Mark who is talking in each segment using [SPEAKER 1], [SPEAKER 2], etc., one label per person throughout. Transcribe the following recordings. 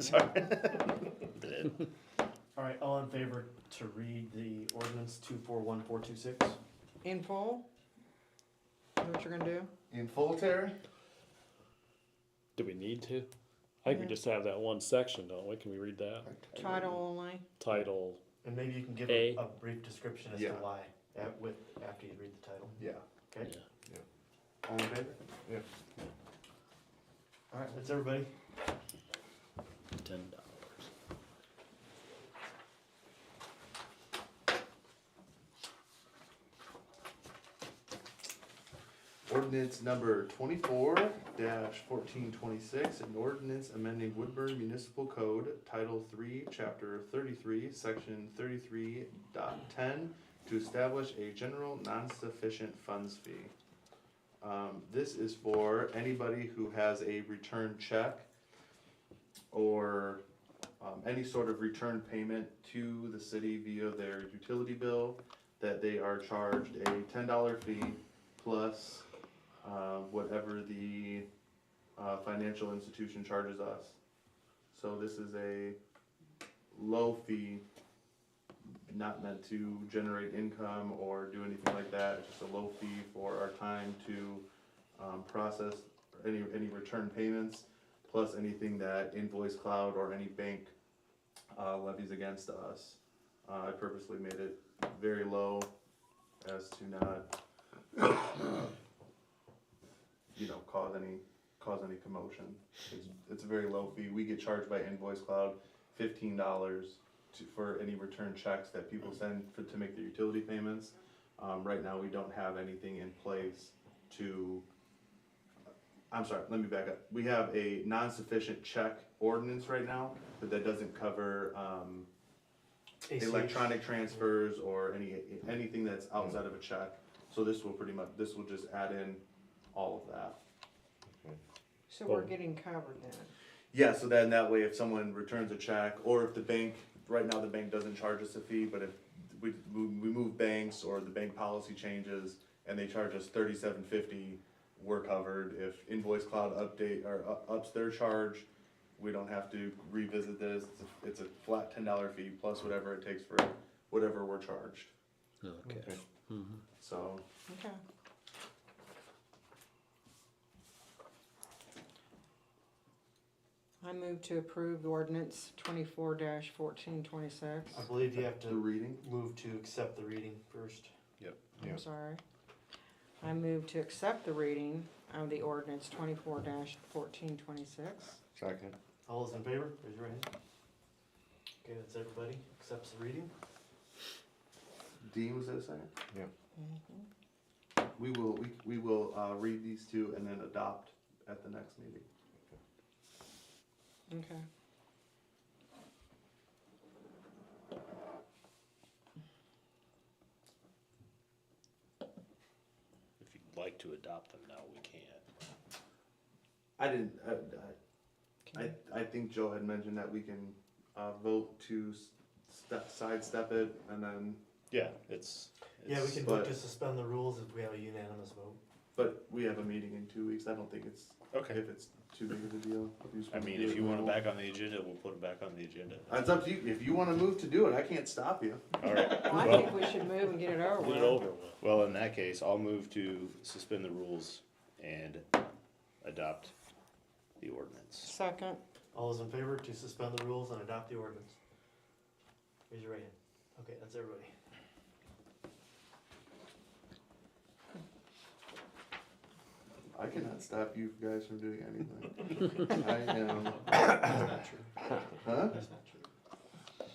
[SPEAKER 1] Sorry.
[SPEAKER 2] All right, all in favor to read the ordinance two four one four two six?
[SPEAKER 3] In full? Is that what you're gonna do?
[SPEAKER 4] In full, Terry?
[SPEAKER 1] Do we need to? I think we just have that one section, don't we? Can we read that?
[SPEAKER 3] Title only?
[SPEAKER 1] Title,
[SPEAKER 2] And maybe you can give
[SPEAKER 1] A.
[SPEAKER 2] a a brief description as to
[SPEAKER 4] Yeah.
[SPEAKER 2] why, at- with, after you read the title,
[SPEAKER 4] Yeah.
[SPEAKER 2] okay?
[SPEAKER 1] Yeah.
[SPEAKER 4] Yeah.
[SPEAKER 2] All in favor?
[SPEAKER 4] Yeah.
[SPEAKER 2] All right, that's everybody.
[SPEAKER 1] ten dollars.
[SPEAKER 4] Ordinance number twenty-four fourteen twenty-six, an ordinance amending Woodburn Municipal Code, Title Three, Chapter thirty-three, Section 33.10, to establish a general non-sufficient funds fee. Um, this is for anybody who has a return check or, um, any sort of return payment to the city via their utility bill, that they are charged a ten dollar fee plus uh, whatever the uh, financial institution charges us. So this is a low fee, not meant to generate income or do anything like that. It's just a low fee for our time to um, process any any return payments, plus anything that Invoice Cloud or any bank uh, levies against us. Uh, I purposely made it very low as to not you know, cause any, cause any commotion. It's, it's a very low fee. We get charged by Invoice Cloud fifteen dollars to, for any return checks that people send for, to make their utility payments. Um, right now, we don't have anything in place to, I'm sorry, let me back up. We have a non-sufficient check ordinance right now, but that doesn't cover, um,
[SPEAKER 2] ACH.
[SPEAKER 4] electronic transfers or any, anything that's outside of a check. So this will pretty much, this will just add in all of that.
[SPEAKER 3] So we're
[SPEAKER 1] Full.
[SPEAKER 3] getting covered then?
[SPEAKER 4] Yeah, so then that way if someone returns a check, or if the bank, right now the bank doesn't charge us a fee, but if we, we we move banks or the bank policy changes and they charge us thirty-seven fifty, we're covered. If Invoice Cloud update, or u- ups their charge, we don't have to revisit this. It's a- It's a flat ten dollar fee plus whatever it takes for whatever we're charged,
[SPEAKER 1] Okay.
[SPEAKER 4] so.
[SPEAKER 3] Okay. I move to approve ordinance twenty-four fourteen twenty-six.
[SPEAKER 2] I believe you have
[SPEAKER 4] The
[SPEAKER 2] to
[SPEAKER 4] reading?
[SPEAKER 2] move to accept the reading first.
[SPEAKER 4] Yeah.
[SPEAKER 3] I'm sorry. I move to accept the reading of the ordinance twenty-four fourteen twenty-six.
[SPEAKER 4] Second.
[SPEAKER 2] All those in favor, raise your hand. Okay, that's everybody, accepts the reading.
[SPEAKER 4] Dean, was that a second? We will, we, we will, uh, read these two and then adopt at the next meeting.
[SPEAKER 3] Okay.
[SPEAKER 1] If you'd like to adopt them now, we can.
[SPEAKER 4] I didn't, I, I, I- I think Joe had mentioned that we can, uh, vote to s- step, sidestep it and then,
[SPEAKER 1] Yeah, it's.
[SPEAKER 2] Yeah, we
[SPEAKER 1] it's-
[SPEAKER 2] can
[SPEAKER 4] but-
[SPEAKER 2] vote to suspend the rules if we have a unanimous vote.
[SPEAKER 4] but we have a meeting in two weeks. I don't think it's,
[SPEAKER 1] Okay.
[SPEAKER 4] if it's too big of a deal. if just
[SPEAKER 1] I
[SPEAKER 4] wanna
[SPEAKER 1] mean,
[SPEAKER 4] do
[SPEAKER 1] if
[SPEAKER 4] it
[SPEAKER 1] you want it
[SPEAKER 4] now.
[SPEAKER 1] back on the agenda, we'll put it back on the agenda.
[SPEAKER 4] It's up to you. If you wanna move to do it, I can't stop you.
[SPEAKER 1] All right.
[SPEAKER 3] Well, I
[SPEAKER 1] Well-
[SPEAKER 3] think we should move and get it over
[SPEAKER 1] Get it
[SPEAKER 3] with.
[SPEAKER 1] over with. Well, in that case, I'll move to suspend the rules and adopt the ordinance.
[SPEAKER 3] Second.
[SPEAKER 2] All those in favor to suspend the rules and adopt the ordinance? Raise your right hand. Okay, that's everybody.
[SPEAKER 4] I cannot stop you guys from doing anything. I am,
[SPEAKER 2] That's not true.
[SPEAKER 4] huh?
[SPEAKER 2] That's not true.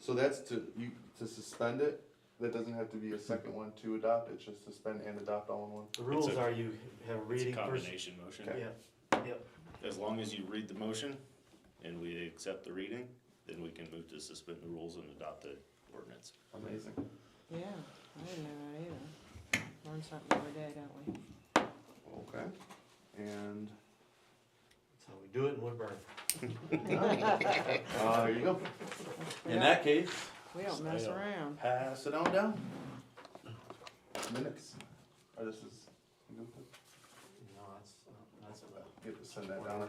[SPEAKER 4] So that's to, you, to suspend it? That doesn't have to be a second one to adopt, it's just suspend and adopt all in one?
[SPEAKER 2] The rules
[SPEAKER 1] a-
[SPEAKER 2] are you have
[SPEAKER 1] It's a
[SPEAKER 2] reading first.
[SPEAKER 1] combination motion.
[SPEAKER 2] Yeah,
[SPEAKER 1] As long as you read the motion and we accept the reading, then we can move to suspend the rules and adopt the ordinance.
[SPEAKER 4] Amazing.
[SPEAKER 3] Yeah, I didn't know that either. Learn something every day, don't we?
[SPEAKER 4] Okay. And,
[SPEAKER 2] that's how we do it in Woodburn.
[SPEAKER 4] uh, there you go.
[SPEAKER 3] We don't,
[SPEAKER 2] case.
[SPEAKER 3] we don't mess
[SPEAKER 1] I don't-
[SPEAKER 3] around.
[SPEAKER 4] Pass it on down. Minutes. Or this is, you
[SPEAKER 2] No, that's, that's.
[SPEAKER 4] have to send that down.